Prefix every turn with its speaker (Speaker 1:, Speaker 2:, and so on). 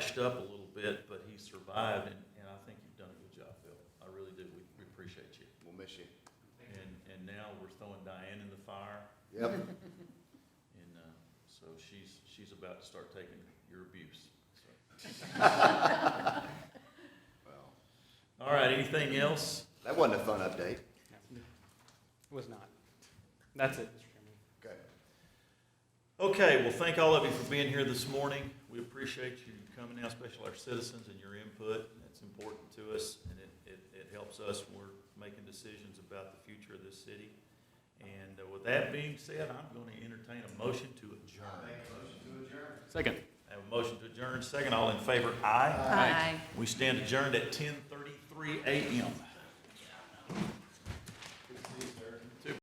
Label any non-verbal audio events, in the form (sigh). Speaker 1: gashed up a little bit, but he survived, and, and I think you've done a good job, Bill. I really do. We, we appreciate you.
Speaker 2: We'll miss you.
Speaker 1: And, and now we're throwing Diane in the fire,
Speaker 2: Yep. (laughs)
Speaker 1: and, uh, so she's, she's about to start taking your abuse. so.
Speaker 2: Well,
Speaker 1: All right, anything else?
Speaker 2: That wasn't a fun update.
Speaker 3: Was not. That's it, Mr. Chairman.
Speaker 2: Okay.
Speaker 1: Okay, well, thank all of you for being here this morning. We appreciate you coming out, especially our citizens and your input. It's important to us, and it, it, it helps us when we're making decisions about the future of this city. And uh, with that being said, I'm going to entertain a motion to adjourn.
Speaker 3: Second.
Speaker 1: I have a motion to adjourn, second, all in favor, aye.
Speaker 4: Aye.
Speaker 1: We stand adjourned at ten thirty-three AM.